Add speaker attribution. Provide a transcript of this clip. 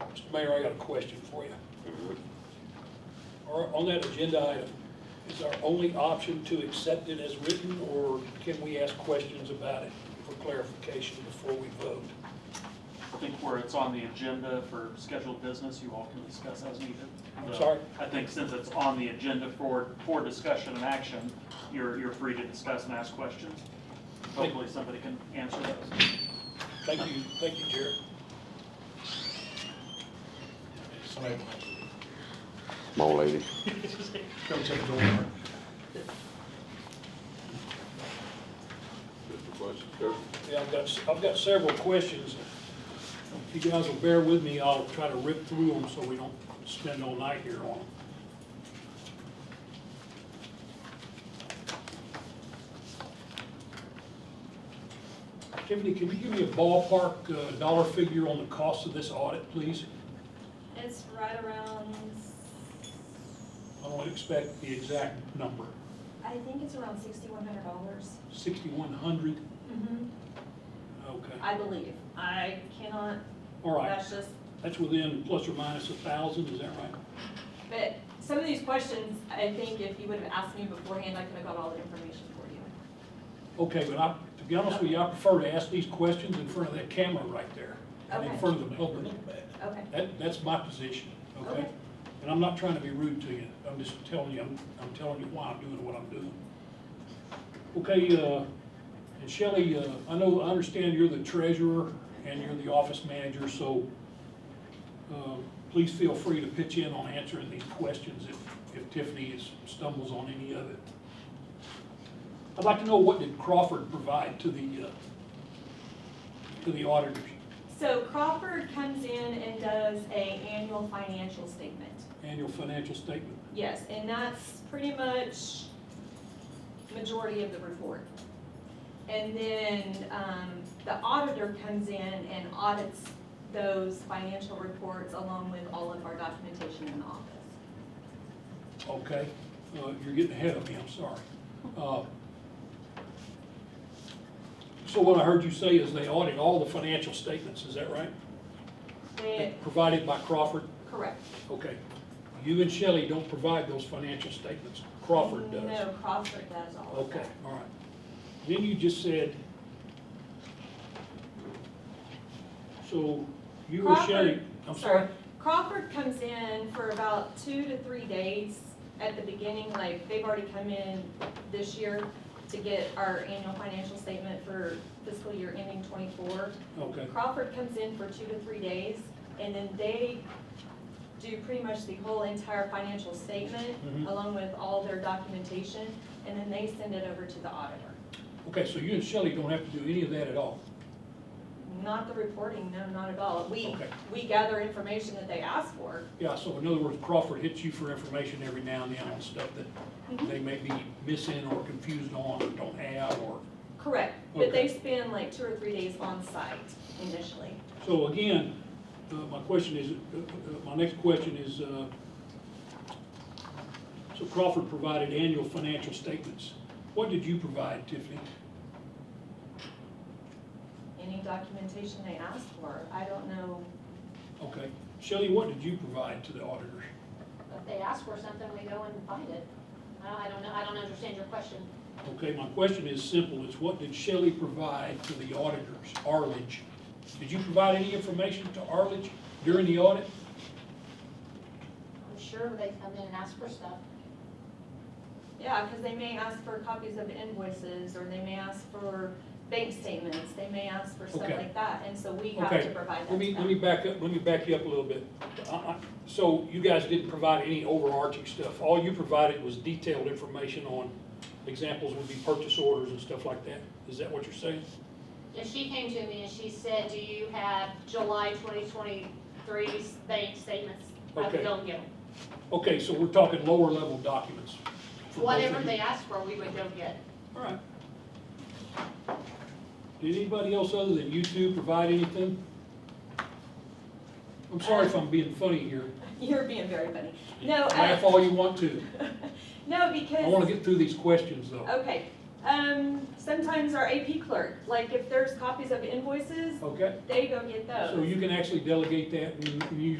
Speaker 1: Mr. Mayor, I got a question for you. Or on that agenda item, is our only option to accept it as written, or can we ask questions about it for clarification before we vote?
Speaker 2: I think where it's on the agenda for scheduled business, you all can discuss as needed.
Speaker 1: I'm sorry?
Speaker 2: I think since it's on the agenda for, for discussion and action, you're, you're free to discuss and ask questions. Hopefully, somebody can answer those.
Speaker 1: Thank you, thank you, Jared.
Speaker 3: Somebody
Speaker 4: My old lady.
Speaker 3: come take the door.
Speaker 5: Mr. Bush, sir.
Speaker 1: Yeah, I've got, s- I've got several questions. If you guys will bear with me, I'll try to rip through them so we don't spend all night here on them. Tiffany, can you give me a ballpark uh, dollar figure on the cost of this audit, please?
Speaker 6: It's right around, s-
Speaker 1: I don't expect the exact number.
Speaker 6: I think it's around sixty-one hundred dollars.
Speaker 1: Sixty-one hundred?
Speaker 6: Mm-hmm.
Speaker 1: Okay,
Speaker 6: I believe. I cannot,
Speaker 1: all right.
Speaker 6: that's just,
Speaker 1: That's within plus or minus a thousand, is that right?
Speaker 6: but some of these questions, I think if you would have asked me beforehand, I could have got all the information for you.
Speaker 1: Okay, but I, to be honest with you, I prefer to ask these questions in front of that camera right there, and in
Speaker 6: Okay.
Speaker 1: front of the public.
Speaker 6: Okay,
Speaker 1: That, that's my position, okay?
Speaker 6: Okay.
Speaker 1: And I'm not trying to be rude to you, I'm just telling you, I'm, I'm telling you why I'm doing what I'm doing. Okay, uh, and Shelley, uh, I know, I understand you're the treasurer and you're the office manager, so, uh, please feel free to pitch in on answering these questions if, if Tiffany is, stumbles on any of it. I'd like to know what did Crawford provide to the, uh, to the auditors?
Speaker 6: so Crawford comes in and does a annual financial statement.
Speaker 1: Annual financial statement?
Speaker 6: Yes, and that's pretty much majority of the report. And then, um, the auditor comes in and audits those financial reports along with all of our documentation in the office.
Speaker 1: Okay, uh, you're getting ahead of me, I'm sorry. Uh, So what I heard you say is they audit all the financial statements, is that right?
Speaker 6: They,
Speaker 1: Provided by Crawford?
Speaker 6: correct.
Speaker 1: Okay. You and Shelley don't provide those financial statements, Crawford does.
Speaker 6: No, Crawford does all of
Speaker 1: Okay,
Speaker 6: that.
Speaker 1: all right. Then you just said, so you and Shelley,
Speaker 6: Crawford-
Speaker 1: I'm sorry?
Speaker 6: Crawford comes in for about two to three days at the beginning, like, they've already come in this year to get our annual financial statement for fiscal year ending twenty-four.
Speaker 1: Okay,
Speaker 6: Crawford comes in for two to three days, and then they do pretty much the whole entire financial statement,
Speaker 1: Mhm.
Speaker 6: along with all their documentation, and then they send it over to the auditor.
Speaker 1: okay, so you and Shelley don't have to do any of that at all?
Speaker 6: Not the reporting, no, not at all. We,
Speaker 1: Okay.
Speaker 6: we gather information that they ask for.
Speaker 1: Yeah, so in other words, Crawford hits you for information every now and then on stuff that
Speaker 6: Mhm.
Speaker 1: they may be missing or confused on or don't have or,
Speaker 6: Correct, but
Speaker 1: Okay.
Speaker 6: they spend like two or three days on site initially.
Speaker 1: so again, uh, my question is, uh, uh, my next question is, uh, so Crawford provided annual financial statements. What did you provide, Tiffany?
Speaker 6: Any documentation they ask for, I don't know
Speaker 1: Okay, Shelley, what did you provide to the auditors?
Speaker 7: If they ask for something, we go and find it. I I don't know, I don't understand your question.
Speaker 1: Okay, my question is simple, is what did Shelley provide to the auditors, Arledge? Did you provide any information to Arledge during the audit?
Speaker 7: I'm sure they come in and ask for stuff.
Speaker 6: Yeah, because they may ask for copies of invoices, or they may ask for bank statements, they may ask for stuff
Speaker 1: Okay.
Speaker 6: like that, and so we have to
Speaker 1: Okay,
Speaker 6: provide
Speaker 1: let
Speaker 6: that to
Speaker 1: me,
Speaker 6: them.
Speaker 1: let me back up, let me back you up a little bit. I- I- So you guys didn't provide any overarching stuff, all you provided was detailed information on, examples would be purchase orders and stuff like that, is that what you're saying?
Speaker 7: And she came to me and she said, do you have July 2023 bank statements? I
Speaker 1: Okay.
Speaker 7: would go get them.
Speaker 1: Okay, so we're talking lower level documents. for both of
Speaker 7: Whatever
Speaker 1: you.
Speaker 7: they ask for, we would go get.
Speaker 1: All right. Did anybody else other than you two provide anything? I'm sorry if I'm being funny here,
Speaker 6: You're being very funny. No,
Speaker 1: laugh
Speaker 6: uh,
Speaker 1: all you want to,
Speaker 6: no,
Speaker 1: I wanna
Speaker 6: because,
Speaker 1: get through these questions though.
Speaker 6: okay, um, sometimes our AP clerk, like if there's copies of invoices,
Speaker 1: Okay,
Speaker 6: they go get those.
Speaker 1: so you can actually delegate that and you